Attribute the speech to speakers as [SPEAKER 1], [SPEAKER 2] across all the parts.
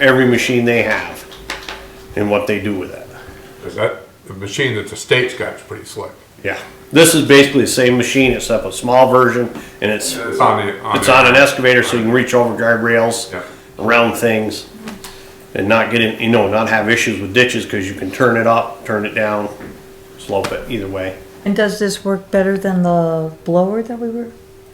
[SPEAKER 1] every machine they have and what they do with it.
[SPEAKER 2] Because that, the machine that the state's got is pretty slick.
[SPEAKER 1] Yeah. This is basically the same machine except a small version and it's
[SPEAKER 2] It's on the, on
[SPEAKER 1] it's on
[SPEAKER 2] the,
[SPEAKER 1] an excavator so you can reach over guardrails,
[SPEAKER 2] Yeah.
[SPEAKER 1] around things and not get in, you know, not have issues with ditches because you can turn it up, turn it down, slope it either way.
[SPEAKER 3] And does this work better than the blower that we were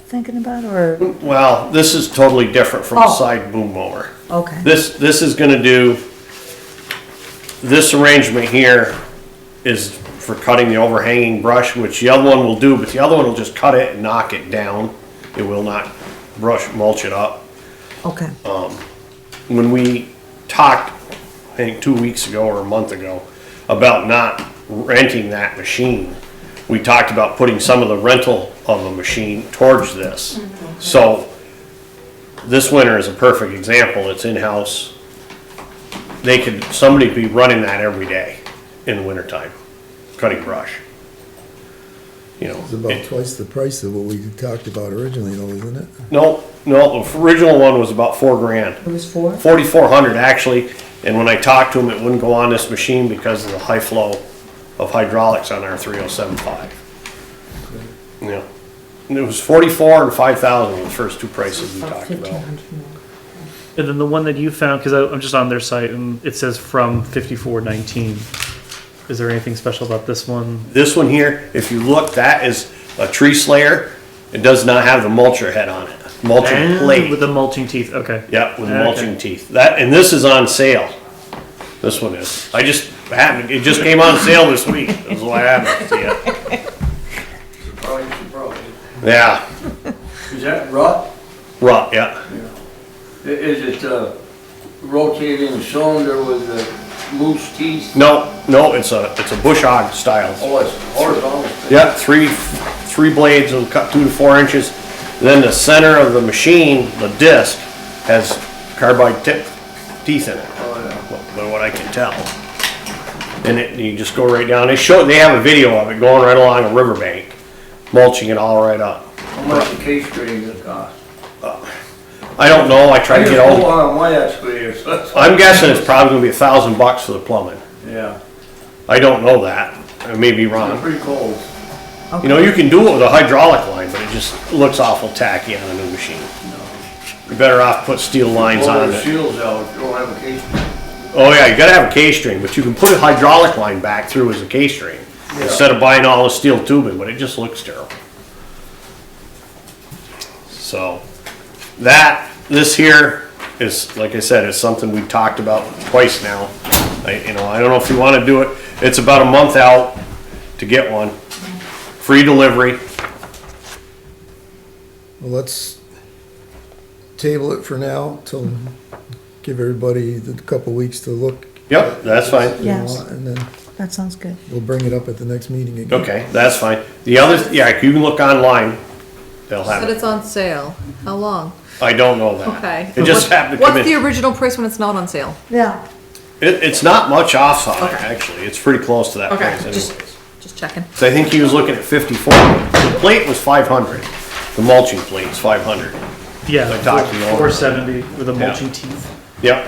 [SPEAKER 3] thinking about, or,
[SPEAKER 1] Well, this is totally different from a
[SPEAKER 3] Oh.
[SPEAKER 1] side boom mower.
[SPEAKER 3] okay,
[SPEAKER 1] This, this is gonna do, this arrangement here is for cutting the overhanging brush, which the other one will do, but the other one will just cut it and knock it down. It will not brush, mulch it up.
[SPEAKER 3] okay,
[SPEAKER 1] When we talked, I think two weeks ago or a month ago, about not renting that machine, we talked about putting some of the rental of a machine towards this. So this winter is a perfect example. It's in-house. They could, somebody be running that every day in the wintertime, cutting brush. You know.
[SPEAKER 4] It's about twice the price of what we talked about originally, though, isn't it?
[SPEAKER 1] No, no, the original one was about four grand.
[SPEAKER 3] it was four?
[SPEAKER 1] forty-four hundred actually, and when I talked to him, it wouldn't go on this machine because of the high flow of hydraulics on our three oh seven five. Yeah, and it was forty-four and five thousand were the first two prices we talked about.
[SPEAKER 5] And then the one that you found, because I'm just on their site and it says from fifty-four nineteen. Is there anything special about this one?
[SPEAKER 1] This one here, if you look, that is a tree slayer, it does not have the mulcher head on it, mulcher plate.
[SPEAKER 5] With the mulching teeth, okay.
[SPEAKER 1] Yep, with the
[SPEAKER 5] Okay.
[SPEAKER 1] mulching teeth. That, and this is on sale. This one is. I just happened, it just came on sale this week. That's why I happened to see it.
[SPEAKER 6] Probably, probably.
[SPEAKER 1] Yeah,
[SPEAKER 6] Is that rut?
[SPEAKER 1] rut, yeah.
[SPEAKER 6] I- Is it a rotating cylinder with the moose teeth?
[SPEAKER 1] No, no, it's a, it's a bush hog style.
[SPEAKER 6] Oh, it's horizontal.
[SPEAKER 1] Yeah, three, three blades will cut two to four inches. Then the center of the machine, the disc, has carbide tip teeth in it.
[SPEAKER 6] Oh, yeah.
[SPEAKER 1] But but what I can tell. And it, you just go right down. They show, they have a video of it going right along a riverbank, mulching it all right up.
[SPEAKER 6] How much the case grading gonna cost?
[SPEAKER 1] I don't know, I tried
[SPEAKER 6] I
[SPEAKER 1] to
[SPEAKER 6] just
[SPEAKER 1] get
[SPEAKER 6] go
[SPEAKER 1] all,
[SPEAKER 6] on my excavator, so that's.
[SPEAKER 1] I'm guessing it's probably gonna be a thousand bucks for the plumbing.
[SPEAKER 6] Yeah,
[SPEAKER 1] I don't know that, I may be
[SPEAKER 6] it's
[SPEAKER 1] wrong.
[SPEAKER 6] pretty cold.
[SPEAKER 1] You know, you can do it with a hydraulic line, but it just looks awful tacky on a new machine. You're better off put steel lines
[SPEAKER 6] Blow
[SPEAKER 1] on
[SPEAKER 6] the
[SPEAKER 1] it.
[SPEAKER 6] shields out, you don't have a case.
[SPEAKER 1] Oh yeah, you gotta have a K-string, but you can put a hydraulic line back through as a K-string. Instead of buying all the steel tubing, but it just looks terrible. So, that, this here is, like I said, is something we talked about twice now. I, you know, I don't know if you wanna do it, it's about a month out to get one. Free delivery,
[SPEAKER 4] Well, let's table it for now till, give everybody a couple weeks to look.
[SPEAKER 1] yep, that's fine.
[SPEAKER 4] you know,
[SPEAKER 3] Yes.
[SPEAKER 4] And then
[SPEAKER 3] That sounds good.
[SPEAKER 4] we'll bring it up at the next meeting again.
[SPEAKER 1] Okay, that's fine. The other, yeah, you can look online, they'll have
[SPEAKER 7] But
[SPEAKER 1] it.
[SPEAKER 7] it's on sale. How long?
[SPEAKER 1] I don't know that.
[SPEAKER 7] Okay.
[SPEAKER 1] It just happened to come in.
[SPEAKER 7] What's the original price when it's not on sale?
[SPEAKER 3] Yeah,
[SPEAKER 1] It, it's not much offside,
[SPEAKER 7] Okay.
[SPEAKER 1] actually. It's pretty close to that
[SPEAKER 7] Okay,
[SPEAKER 1] price anyways.
[SPEAKER 7] just- Just checking.
[SPEAKER 1] So I think he was looking at fifty-four. The plate was five hundred. The mulching plate's five hundred.
[SPEAKER 5] Yeah,
[SPEAKER 1] I talked to you all.
[SPEAKER 5] four seventy with the
[SPEAKER 1] Yeah.
[SPEAKER 5] mulching teeth.
[SPEAKER 1] Yep.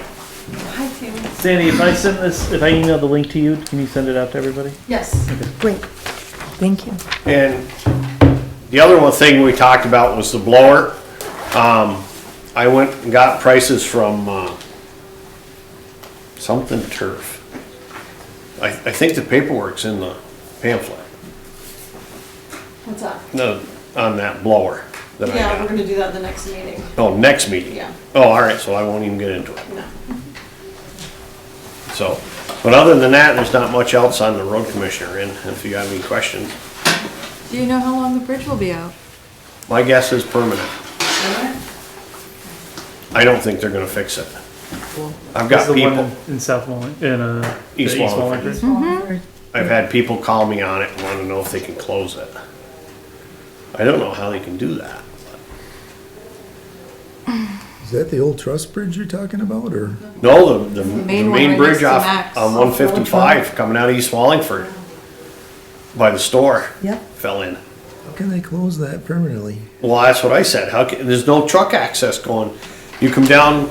[SPEAKER 5] Sandy, if I send this, if I email the link to you, can you send it out to everybody?
[SPEAKER 7] Yes.
[SPEAKER 3] great, thank you.
[SPEAKER 1] And the other one thing we talked about was the blower. Um, I went and got prices from, uh, something turf. I, I think the paperwork's in the pamphlet,
[SPEAKER 8] What's up?
[SPEAKER 1] no, on that blower that I
[SPEAKER 8] Yeah, we're
[SPEAKER 1] got.
[SPEAKER 8] gonna do that the next meeting.
[SPEAKER 1] Oh, next meeting?
[SPEAKER 8] Yeah.
[SPEAKER 1] Oh, all right, so I won't even get into it.
[SPEAKER 8] No.
[SPEAKER 1] So, but other than that, there's not much else on the road commissioner, and if you have any questions,
[SPEAKER 7] Do you know how long the bridge will be out?
[SPEAKER 1] my guess is permanent. I don't think they're gonna fix it. I've
[SPEAKER 5] That's
[SPEAKER 1] got
[SPEAKER 5] the one
[SPEAKER 1] people,
[SPEAKER 5] in- In South Wallingford, in, uh. the
[SPEAKER 1] East Wallingford.
[SPEAKER 5] Wallingford.
[SPEAKER 1] I've had people call me on it and wanna know if they can close it. I don't know how they can do that.
[SPEAKER 4] Is that the old trust bridge you're talking about, or?
[SPEAKER 1] No, the, the, the
[SPEAKER 7] main one
[SPEAKER 1] main
[SPEAKER 7] right
[SPEAKER 1] bridge
[SPEAKER 7] next to
[SPEAKER 1] off,
[SPEAKER 7] Max.
[SPEAKER 1] on one fifty-five, coming out of East Wallingford, by the store,
[SPEAKER 3] Yep,
[SPEAKER 1] fell in.
[SPEAKER 4] How can they close that permanently?
[SPEAKER 1] Well, that's what I said. How can, there's no truck access going. You come down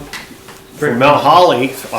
[SPEAKER 1] from Mount Holly